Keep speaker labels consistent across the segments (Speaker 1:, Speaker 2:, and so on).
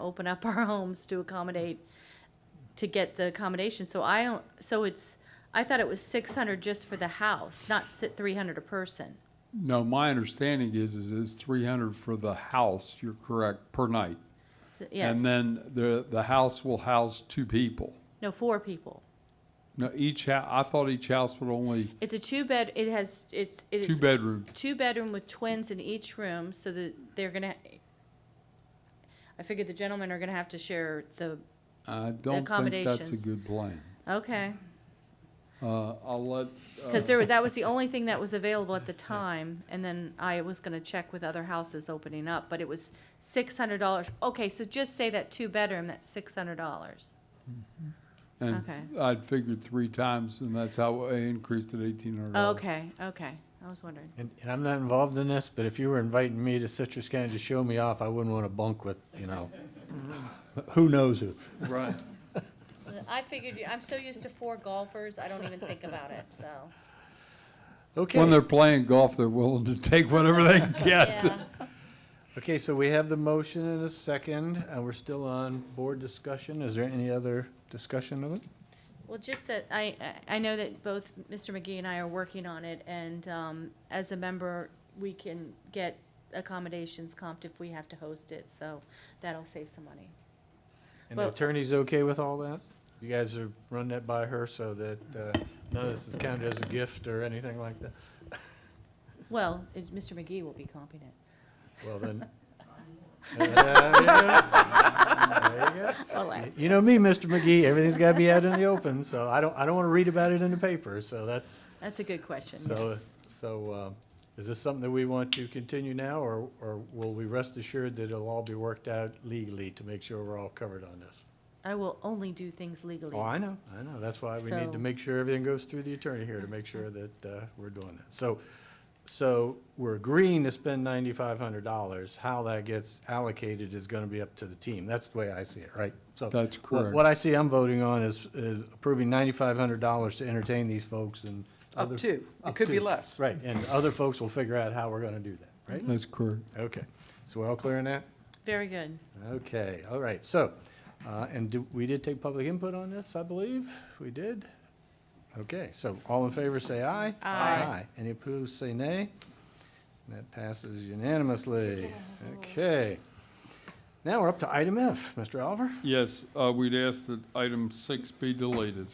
Speaker 1: open up our homes to accommodate, to get the accommodation. So I, don't- so it's, I thought it was six hundred just for the house, not three hundred a person.
Speaker 2: No, my understanding is, is it's three hundred for the house, you're correct, per night.
Speaker 1: Yes.
Speaker 2: And then the, the house will house two people.
Speaker 1: No, four people.
Speaker 2: No, each hou, I thought each house would only,
Speaker 1: It's a two-bed, it has, it's, it
Speaker 2: two
Speaker 1: is
Speaker 2: bedroom.
Speaker 1: two-bedroom with twins in each room, so that they're gonna, I figured the gentlemen are gonna have to share the,
Speaker 2: I don't think that's a
Speaker 1: accommodations.
Speaker 2: good plan.
Speaker 1: okay.
Speaker 2: Uh, I'll let,
Speaker 1: Because there, were- that was the only thing that was available at the time, and then I was gonna check with other houses opening up, but it was six hundred dollars. Okay, so just say that two-bedroom, that's six hundred dollars.
Speaker 2: and
Speaker 1: okay.
Speaker 2: I'd figured three times, and that's how I increased it eighteen hundred dollars.
Speaker 1: Okay, okay, I was wondering.
Speaker 3: And, and I'm not involved in this, but if you were inviting me to Citrus County to show me off, I wouldn't want to bunk with, you know, who knows who.
Speaker 2: Right.
Speaker 1: I figured, I'm so used to four golfers, I don't even think about it, so.
Speaker 2: When
Speaker 3: Okay,
Speaker 2: they're playing golf, they're willing to take whatever they can get.
Speaker 3: okay, so we have the motion and a second, and we're still on board discussion. Is there any other discussion of it?
Speaker 1: Well, just that, I, I I know that both Mr. McGee and I are working on it, and um, as a member, we can get accommodations comped if we have to host it, so that'll save some money.
Speaker 3: And the
Speaker 1: Well-
Speaker 3: attorney's okay with all that? You guys are running that by her so that, uh, none of this is counted as a gift or anything like that?
Speaker 1: Well, it- Mr. McGee will be comping it.
Speaker 3: Well, then. Uh, yeah. There you go. Y- You know me, Mr. McGee, everything's gotta be out in the open, so I don't, I don't wanna read about it in the paper, so that's,
Speaker 1: That's a good question,
Speaker 3: so,
Speaker 1: yes.
Speaker 3: so, uh, is this something that we want to continue now, or, or will we rest assured that it'll all be worked out legally to make sure we're all covered on this?
Speaker 1: I will only do things legally.
Speaker 3: Oh, I know, I know, that's why we need
Speaker 1: So-
Speaker 3: to make sure everything goes through the attorney here to make sure that, uh, we're doing that. So, so we're agreeing to spend ninety-five hundred dollars, how that gets allocated is gonna be up to the team, that's the way I see it, right? So,
Speaker 2: That's
Speaker 3: Wh-
Speaker 2: correct.
Speaker 3: What I see I'm voting on is is approving ninety-five hundred dollars to entertain these folks and.
Speaker 4: Up
Speaker 3: other-
Speaker 4: to. It
Speaker 3: up
Speaker 4: could be
Speaker 3: to.
Speaker 4: less.
Speaker 3: Right, and other folks will figure out how we're gonna do that, right?
Speaker 2: That's correct.
Speaker 3: Okay, so we're all clear on that?
Speaker 1: Very good.
Speaker 3: Okay, all right, so, uh, and do- we did take public input on this, I believe? We did? Okay, so all in favor, say aye.
Speaker 1: Aye.
Speaker 3: Any opposed, say nay. And That passes unanimously. Okay. Now we're up to item F, Mr. Oliver.
Speaker 2: Yes, uh, we'd ask that item six be deleted.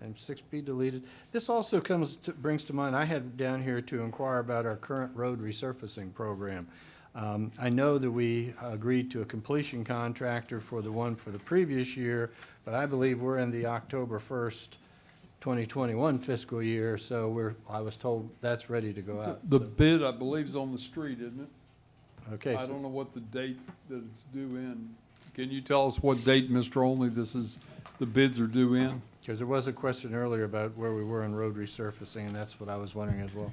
Speaker 3: Item six B deleted. This also comes, to- brings to mind, I had down here to inquire about our current road resurfacing program. Um, I know that we agreed to a completion contractor for the one for the previous year, but I believe we're in the October first, twenty twenty-one fiscal year, so we're, I was told that's ready to go out.
Speaker 2: The bid, I believe, is on the street, isn't it?
Speaker 3: Okay,
Speaker 2: I don't
Speaker 3: so
Speaker 2: know what the date that it's due in. Can you tell us what date, Mr. Only, this is, the bids are due in?
Speaker 3: because there was a question earlier about where we were in road resurfacing, and that's what I was wondering as well.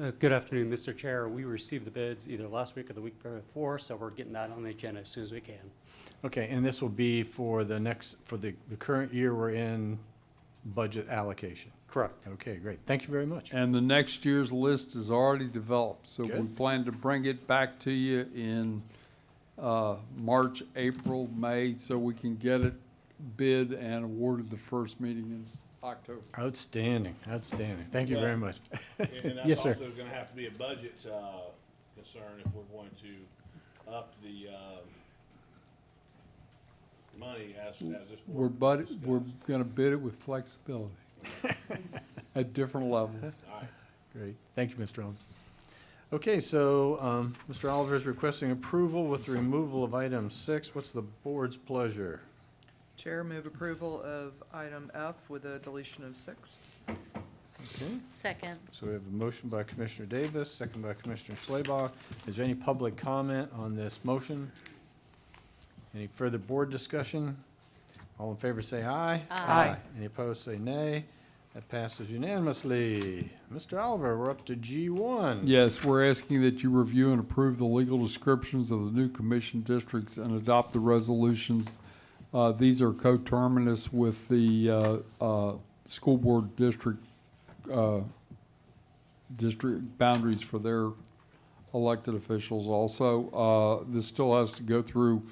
Speaker 5: Uh, Good afternoon, Mr. Chair. We received the bids either last week or the week before, so we're getting that on the agenda as soon as we can.
Speaker 3: Okay, and this will be for the next, for the, the current year we're in budget allocation?
Speaker 5: Correct.
Speaker 3: Okay, great. Thank you very much.
Speaker 2: And the next year's list is already developed, so we
Speaker 3: Good.
Speaker 2: plan to bring it back to you in, uh, March, April, May, so we can get it bid and awarded the first meeting in s- October.
Speaker 3: Outstanding, outstanding. Thank you very much.
Speaker 6: And
Speaker 3: Yes,
Speaker 6: that's
Speaker 3: sir.
Speaker 6: also gonna have to be a budget, uh, concern if we're going to up the, uh, money as, as this
Speaker 2: We're
Speaker 6: board.
Speaker 2: bud, we're gonna bid it with flexibility at different levels.
Speaker 6: Alright,
Speaker 3: Great. Thank you, Mr. Owen. Okay, so, um, Mr. Oliver is requesting approval with the removal of item six. What's the board's pleasure?
Speaker 4: Chair, move approval of item F with a deletion of six.
Speaker 3: Okay,
Speaker 1: Second.
Speaker 3: so we have a motion by Commissioner Davis, second by Commissioner Schleba. Is there any public comment on this motion? Any further board discussion? All in favor, say aye.
Speaker 1: Aye.
Speaker 3: Any opposed, say nay. That passes unanimously. Mr. Oliver, we're up to G1.
Speaker 2: Yes, we're asking that you review and approve the legal descriptions of the new commission districts and adopt the resolutions. Uh, These are coterminous with the uh, uh, school board district, uh, district boundaries for their elected officials also. Uh, This still has to go through